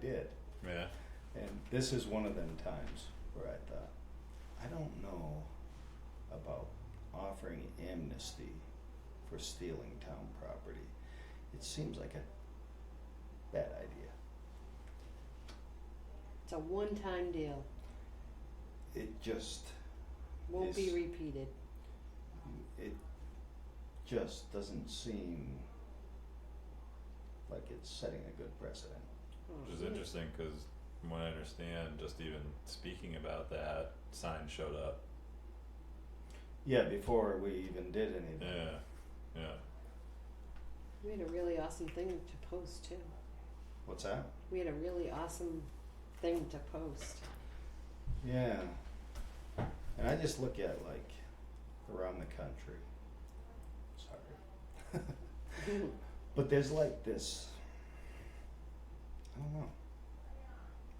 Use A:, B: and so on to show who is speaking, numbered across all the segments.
A: did.
B: Yeah.
A: And this is one of them times where I thought, I don't know about offering amnesty for stealing town property. It seems like a bad idea.
C: It's a one-time deal,
A: It just,
C: won't be
A: Yes.
C: repeated.
A: it just doesn't seem like it's setting a good precedent.
C: Oh,
B: Which is
C: yeah.
B: interesting because, from what I understand, just even speaking about that, sign showed up.
A: Yeah, before we even did anything.
B: Yeah. Yeah.
C: We had a really awesome thing to post too.
A: What's that?
C: We had a really awesome thing to post.
A: Yeah. And I just look at like around the country. Sorry. but there's like this I don't know.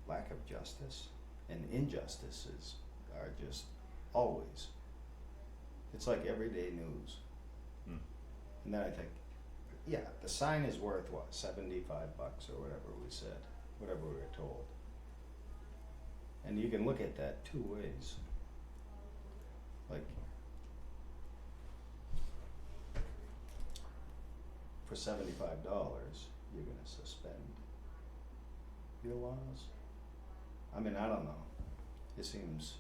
A: Lack of justice and injustices are just always. It's like everyday news.
B: Hmm.
A: And then I think, yeah, the sign is worth what, seventy-five bucks or whatever we said, whatever we were told. And you can look at that two ways. Like, for seventy-five dollars, you're gonna suspend your laws. I mean, I don't know. It seems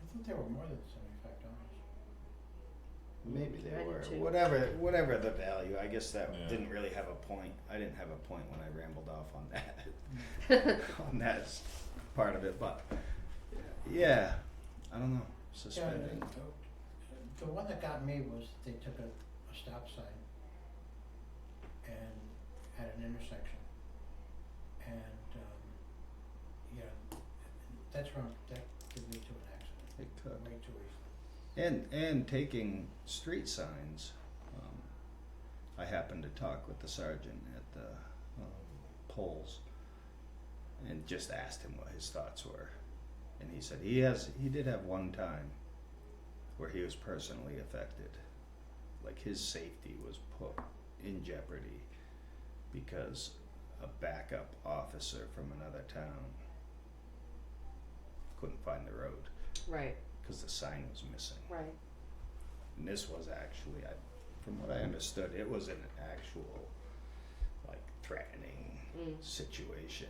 D: I thought they were more than seventy-five dollars.
A: maybe
C: I
A: they
C: do
A: were
C: too.
A: whatever whatever the value. I guess that
B: Yeah.
A: didn't really have a point. I didn't have a point when I rambled off on that. on that s- part of it, but yeah, I don't know. Suspending.
D: The one that got me was they took a, a stop sign and at an intersection. And, um, you know, that's wrong, that could lead to an accident,
A: It could.
D: way too easily.
A: And and taking street signs. Um, I happened to talk with the sergeant at the um, polls, and just asked him what his thoughts were, and he said he has he did have one time where he was personally affected, like his safety was put in jeopardy because a backup officer from another town couldn't find the road
C: Right,
A: because the sign was missing.
C: right.
A: And this was actually, I, from what I understood, it was an actual, like, threatening
C: Mm.
A: situation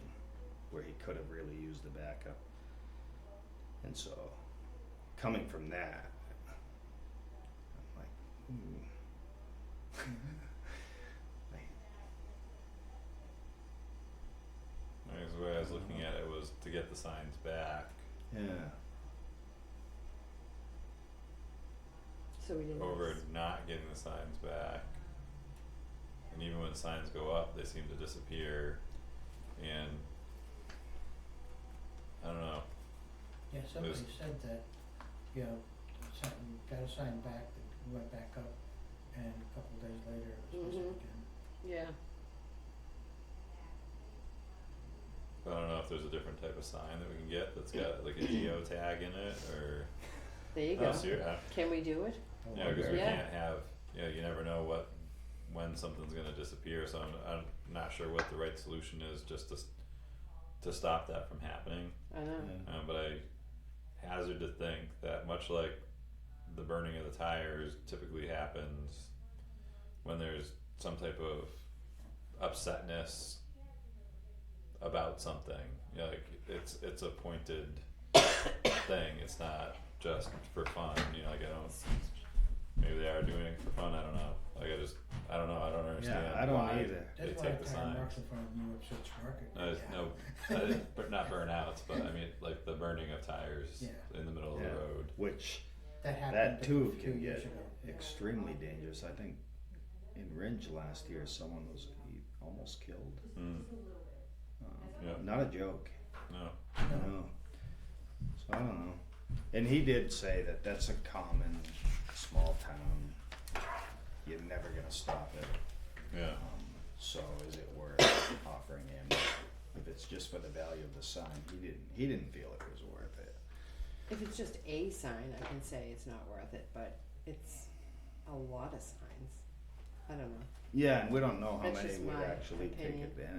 A: where he could have really used the backup. And so, coming from that, I'm like, hmm.
B: I guess the way I was looking at it was to get the signs back
A: Yeah.
C: So we didn't.
B: over not getting the signs back. And even when signs go up, they seem to disappear. And I don't know.
D: Yeah, somebody said that, you know, something, got a sign back, that went back up, and a couple days later, it was missing
C: Mhm.
D: again.
C: Yeah,
B: But I don't know if there's a different type of sign that we can get that's got like a geo tag in it or.
C: there you
B: I don't
C: go.
B: see it. I-
C: Can we do it?
A: I
B: Yeah, because we
C: Yeah.
B: can't have, you know, you never know what, when something's gonna disappear, so I'm, I'm not sure what the right solution is just to, s- to stop that from happening,
C: I know.
A: wonder.
B: um, but I hazard to think that much like the burning of the tires typically happens when there's some type of upsetness about something, you know, like, it's, it's a pointed thing, it's not just for fun, you know, like I don't Maybe they are doing it for fun. I don't know. Like I just, I don't know. I don't understand.
A: Yeah, I don't
B: why
A: either.
B: They take the
D: That's why I kind of
B: signs.
D: marked in front of New York City's market.
B: No, it's-
D: Yeah.
B: no, I didn't- but not burnouts, but I mean like the burning of tires
D: Yeah.
B: in the middle
A: Yeah.
B: of the road.
A: Which,
D: That
A: that
D: happened a
A: too
D: few
A: can
D: years
A: get
D: ago. Yeah.
A: extremely dangerous. I think in Ringe last year, someone was he almost killed.
B: Mm,
A: Um,
B: yeah,
A: Not a joke.
B: no,
D: No.
A: No. So I don't know. And he did say that that's a common small town. You're never gonna stop it.
B: yeah,
A: Um, so is it worth offering him if it's just for the value of the sign? He didn't. He didn't feel it was worth it.
C: If it's just a sign, I can say it's not worth it, but it's a lot of signs. I don't know.
A: Yeah, and we don't know how
C: That's
A: many
C: just
A: would
C: my
A: actually take
C: opinion.
A: advantage.